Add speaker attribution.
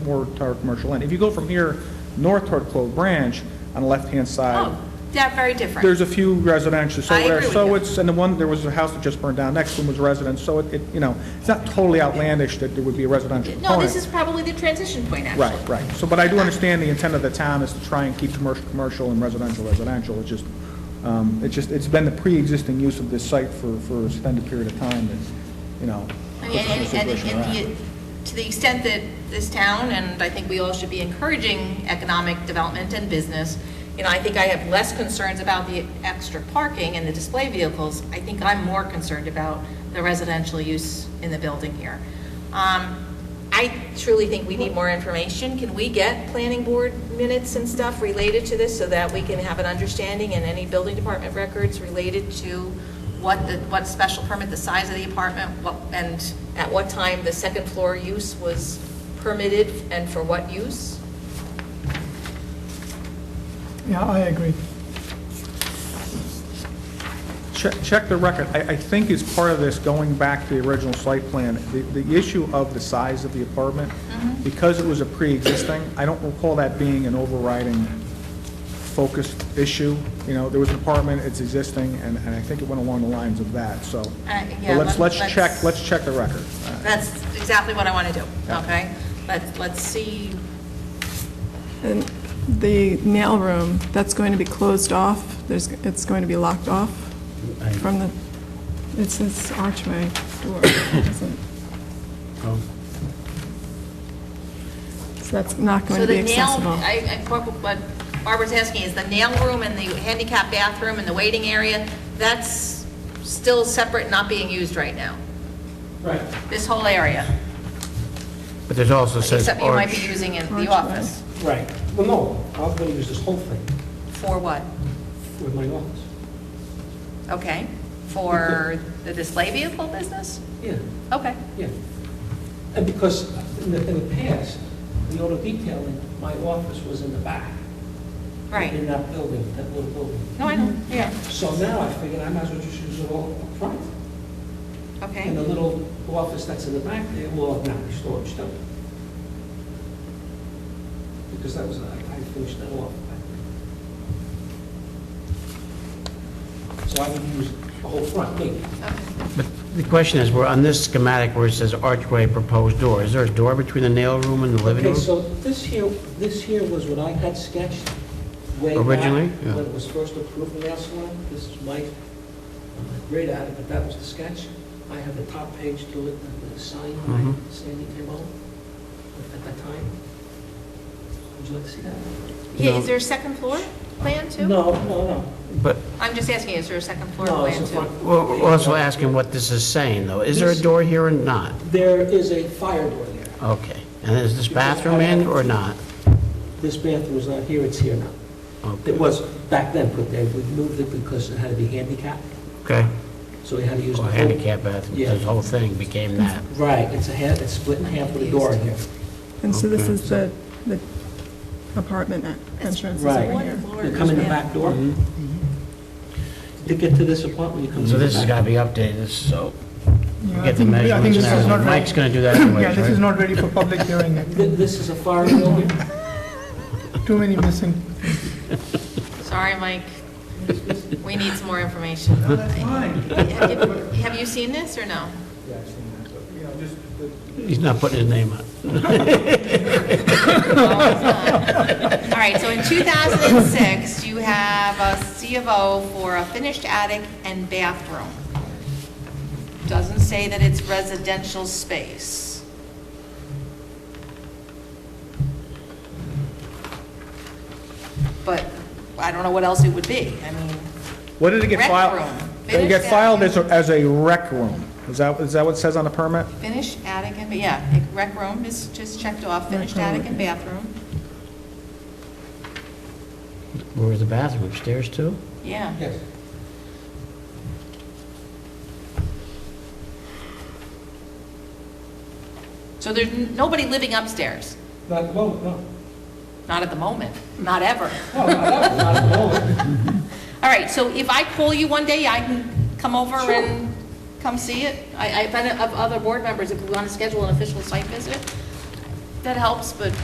Speaker 1: more toward commercial end. If you go from here north toward Clove Branch, on the left-hand side,
Speaker 2: Oh, that, very different.
Speaker 1: there's a few residential, so
Speaker 2: I agree
Speaker 1: there,
Speaker 2: with
Speaker 1: so
Speaker 2: you.
Speaker 1: it's, and the one, there was a house that just burned down, next one was residence, so it, it, you know, it's not totally outlandish that there would be a residential
Speaker 2: No, this
Speaker 1: component.
Speaker 2: is probably the transition point, actually.
Speaker 1: Right, right. So, but I do understand the intent of the town is to try and keep commercial, commercial and residential, residential. It's just, um, it's just, it's been the pre-existing use of this site for, for an extended period of time that, you know,
Speaker 2: I
Speaker 1: puts
Speaker 2: mean,
Speaker 1: us in the
Speaker 2: And, and,
Speaker 1: situation we're at.
Speaker 2: and the- to the extent that this town, and I think we all should be encouraging economic development and business, you know, I think I have less concerns about the extra parking and the display vehicles. I think I'm more concerned about the residential use in the building here. Um, I truly think we need more information. Can we get planning board minutes and stuff related to this so that we can have an understanding and any building department records related to what the, what special permit, the size of the apartment, what, and at what time the second floor use was permitted and for what use?
Speaker 3: Yeah, I agree.
Speaker 1: Check, check the record. I, I think as part of this, going back to the original site plan, the, the issue of the size of the apartment,
Speaker 2: Mm-hmm.
Speaker 1: because it was a pre-existing, I don't recall that being an overriding focused issue. You know, there was an apartment, it's existing, and, and I think it went along the lines of that, so.
Speaker 2: Uh, yeah,
Speaker 1: But let's,
Speaker 2: let's-
Speaker 1: let's check,
Speaker 2: let's-
Speaker 1: let's check the record. Uh,
Speaker 2: That's exactly what I want to do,
Speaker 1: Yeah.
Speaker 2: okay? But let's see,
Speaker 3: And the nail room, that's going to be closed off, there's, it's going to be locked off from the, it's this archway door, isn't
Speaker 4: Oh,
Speaker 3: it? So that's not going
Speaker 2: so
Speaker 3: to be
Speaker 2: the nail,
Speaker 3: accessible.
Speaker 2: I, I- what- what Barbara's asking is the nail room and the handicap bathroom and the waiting area, that's still separate, not being used right now? Right. This whole area,
Speaker 4: But there's also says
Speaker 2: except you might be
Speaker 4: arch,
Speaker 2: using it in
Speaker 3: Archway.
Speaker 2: the office.
Speaker 5: Right, well, no, I was gonna use this whole thing
Speaker 2: For what?
Speaker 5: with my office.
Speaker 2: Okay, for the display vehicle business?
Speaker 5: Yeah,
Speaker 2: Okay.
Speaker 5: yeah. And because in the, in the past, the auto detailing, my office was in the back. In
Speaker 2: Right.
Speaker 5: that building, that little building.
Speaker 2: No, I know, yeah,
Speaker 5: So now I figured I might as well just use it all up front. And the
Speaker 2: okay.
Speaker 5: little office that's in the back there will not be storage though. Because that was, I I finished that off. So I would use the whole front, maybe.
Speaker 4: but the question is, we're on this schematic where it says archway proposed door, is there a door between the nail room and the living
Speaker 5: Okay,
Speaker 4: room?
Speaker 5: so this here, this here was what I had sketched way back.
Speaker 4: Originally? Yeah.
Speaker 5: When it was first approved in the salon. This is my, I'm not great at it, but that was the sketch. I have the top page to it, the- the sign by
Speaker 4: Mhm.
Speaker 5: Sandy Kimball at that time. Would you like to see that?
Speaker 2: Yeah, is there a second floor plan too?
Speaker 5: No, no, no.
Speaker 4: But
Speaker 2: I'm just asking, is there a second floor
Speaker 5: No, it's
Speaker 2: plan
Speaker 5: the
Speaker 2: too?
Speaker 5: front.
Speaker 4: we're we're also asking what this is saying, though. Is there a
Speaker 5: This-
Speaker 4: door here or not?
Speaker 5: There is a fire door there.
Speaker 4: Okay. And is this bathroom in or not?
Speaker 5: This bathroom is not here, it's here now.
Speaker 4: Okay.
Speaker 5: It was back then put there. We moved it because it had to be handicapped,
Speaker 4: Okay.
Speaker 5: so we had to use. the
Speaker 4: Or
Speaker 5: whole-
Speaker 4: handicap bathroom,
Speaker 5: Yeah.
Speaker 4: this whole thing became that.
Speaker 5: Right, it's a half, it's split in half with a door in here.
Speaker 3: And so this
Speaker 4: Okay.
Speaker 3: is the, the apartment entrance is
Speaker 5: Right.
Speaker 3: over here.
Speaker 5: You come in the back door.
Speaker 6: Mm-hmm.
Speaker 5: To get to this apartment, you come
Speaker 4: Mm-hmm. So
Speaker 5: to the
Speaker 4: this has got
Speaker 5: back.
Speaker 4: to be updated, so we
Speaker 6: Yeah, I
Speaker 4: get the
Speaker 6: think- I think
Speaker 4: measurements
Speaker 6: this is
Speaker 4: and
Speaker 6: not
Speaker 4: everything.
Speaker 6: right.
Speaker 4: Mike's going to do that
Speaker 6: Yeah,
Speaker 4: anyways,
Speaker 6: this is
Speaker 4: right?
Speaker 6: not ready for public hearing.
Speaker 5: Th- This is a fire drill here.
Speaker 6: Too many missing.
Speaker 2: Sorry, Mike. We need some more information. Have you- have you seen this or no?
Speaker 1: You know, just the-
Speaker 4: He's not putting his name on.
Speaker 2: All right, so in 2006, you have a C of O for a finished attic and bathroom. Doesn't say that it's residential space. But I don't know what else it would be. I mean,
Speaker 1: What did it get
Speaker 2: Rec
Speaker 1: filed?
Speaker 2: room.
Speaker 1: It
Speaker 2: Finish
Speaker 1: get
Speaker 2: that.
Speaker 1: filed as a, as a rec room. Is that, is that what it says on the permit?
Speaker 2: finished attic and, yeah, rec room is just checked off, finished attic and bathroom.
Speaker 4: Where was the bathroom? Upstairs, too?
Speaker 2: Yeah.
Speaker 5: Yes.
Speaker 2: So there's n- nobody living upstairs,
Speaker 5: Not at the moment, no.
Speaker 2: not at the moment, not ever.
Speaker 5: No, not not at the moment.
Speaker 2: All right, so if I call you one day, I can come over and come see it? I, I've been, of other board members, if we want to schedule an official site visit, That helps, but